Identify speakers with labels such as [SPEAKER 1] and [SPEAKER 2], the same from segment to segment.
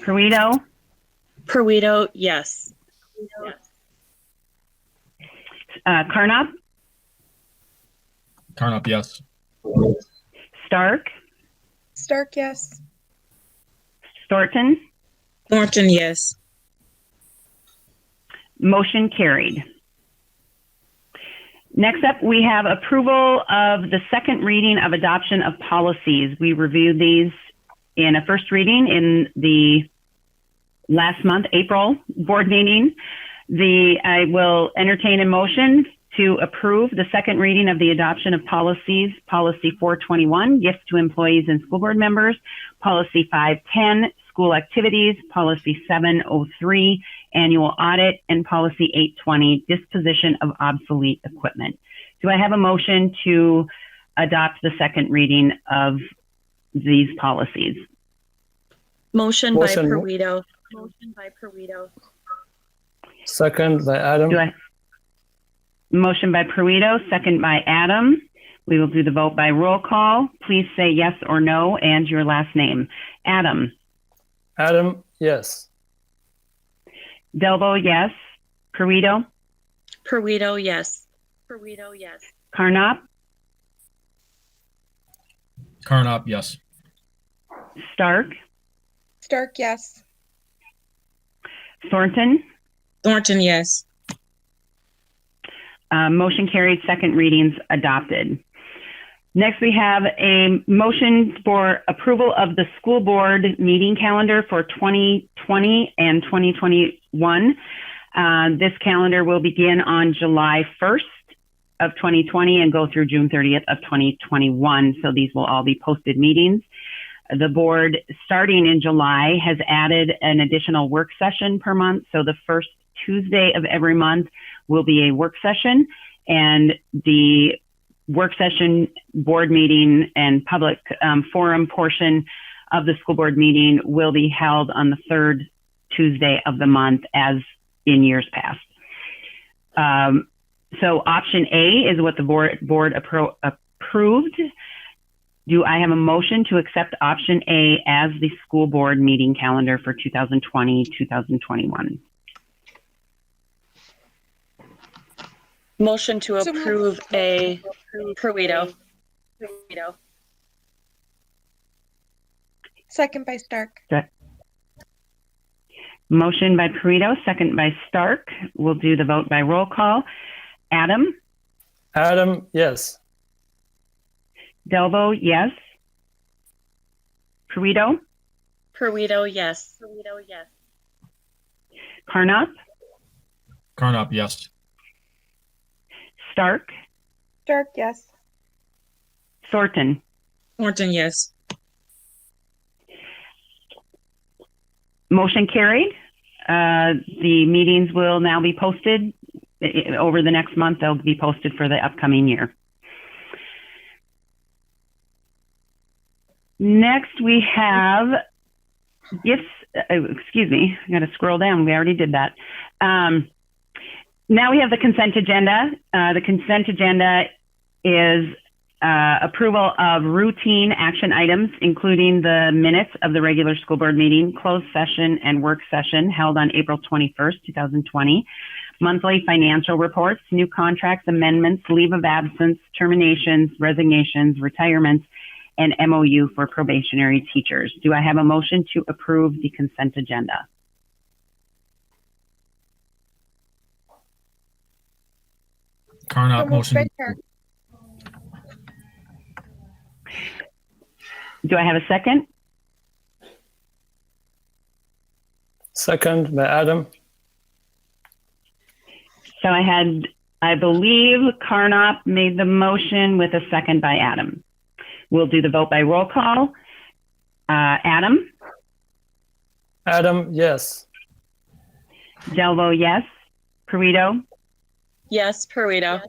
[SPEAKER 1] Perito,
[SPEAKER 2] Purito, yes.
[SPEAKER 1] uh, Carnop,
[SPEAKER 3] Carnop, yes.
[SPEAKER 1] Stark,
[SPEAKER 4] Stark, yes.
[SPEAKER 1] Thornton.
[SPEAKER 2] Thornton, yes.
[SPEAKER 1] Motion carried. Next up, we have approval of the second reading of adoption of policies. We reviewed these in a first reading in the last month, April board meeting. The, I will entertain a motion to approve the second reading of the adoption of policies, policy 421, gifts to employees and school board members, policy 510, school activities, policy 703, annual audit, and policy 820, disposition of obsolete equipment. Do I have a motion to adopt the second reading of these policies?
[SPEAKER 2] Motion by
[SPEAKER 5] Motion.
[SPEAKER 2] Purito. Motion by Purito.
[SPEAKER 5] Second by Adam.
[SPEAKER 1] Do I? Motion by Pruito, second by Adam. We will do the vote by roll call. Please say yes or no and your last name. Adam,
[SPEAKER 5] Adam, yes.
[SPEAKER 1] Delvo, yes. Pruito,
[SPEAKER 2] Purito, yes. Purito, yes.
[SPEAKER 1] Carnop,
[SPEAKER 3] Carnop, yes.
[SPEAKER 1] Stark,
[SPEAKER 4] Stark, yes.
[SPEAKER 1] Thornton.
[SPEAKER 2] Thornton, yes.
[SPEAKER 1] Uh, motion carried, second readings adopted. Next, we have a motion for approval of the school board meeting calendar for 2020 and 2021. Uh, this calendar will begin on July 1st of 2020 and go through June 30th of 2021. So these will all be posted meetings. The board, starting in July, has added an additional work session per month. So the first Tuesday of every month will be a work session and the work session board meeting and public um, forum portion of the school board meeting will be held on the third Tuesday of the month as in years past. Um, so option A is what the board, board appro- approved. Do I have a motion to accept option A as the school board meeting calendar for 2020, 2021?
[SPEAKER 2] Motion to
[SPEAKER 4] So moved.
[SPEAKER 2] approve a Purito. Purito.
[SPEAKER 4] Second by Stark.
[SPEAKER 1] Motion by Perito, second by Stark. We'll do the vote by roll call. Adam,
[SPEAKER 5] Adam, yes.
[SPEAKER 1] Delvo, yes. Perito,
[SPEAKER 2] Purito, yes. Purito, yes.
[SPEAKER 1] Carnop,
[SPEAKER 3] Carnop, yes.
[SPEAKER 1] Stark,
[SPEAKER 4] Stark, yes.
[SPEAKER 1] Thornton.
[SPEAKER 2] Thornton, yes.
[SPEAKER 1] Motion carried. Uh, the meetings will now be posted I- I- over the next month. They'll be posted for the upcoming year. Next, we have gifts. Uh, excuse me, I got to scroll down. We already did that. Um, now we have the consent agenda. Uh, the consent agenda is uh, approval of routine action items, including the minutes of the regular school board meeting, closed session, and work session held on April 21st, 2020, monthly financial reports, new contracts, amendments, leave of absence, terminations, resignations, retirements, and MOU for probationary teachers. Do I have a motion to approve the consent agenda?
[SPEAKER 4] So
[SPEAKER 3] Carnop,
[SPEAKER 4] moved by
[SPEAKER 3] motion.
[SPEAKER 4] Stark.
[SPEAKER 1] Do I have a second?
[SPEAKER 5] Second by Adam.
[SPEAKER 1] So I had, I believe Carnop made the motion with a second by Adam. We'll do the vote by roll call. Uh, Adam,
[SPEAKER 5] Adam, yes.
[SPEAKER 1] Delvo, yes. Perito,
[SPEAKER 2] Yes, Purito.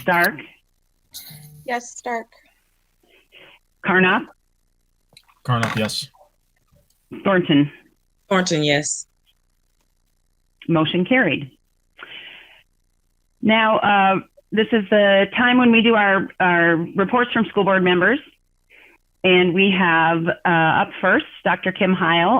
[SPEAKER 1] Stark,
[SPEAKER 4] Yes, Stark.
[SPEAKER 1] Carnop,
[SPEAKER 3] Carnop, yes.
[SPEAKER 1] Thornton.
[SPEAKER 2] Thornton, yes.
[SPEAKER 1] Motion carried. Now, uh, this is the time when we do our, our reports from school board members. And we have uh, up first Dr. Kim Heil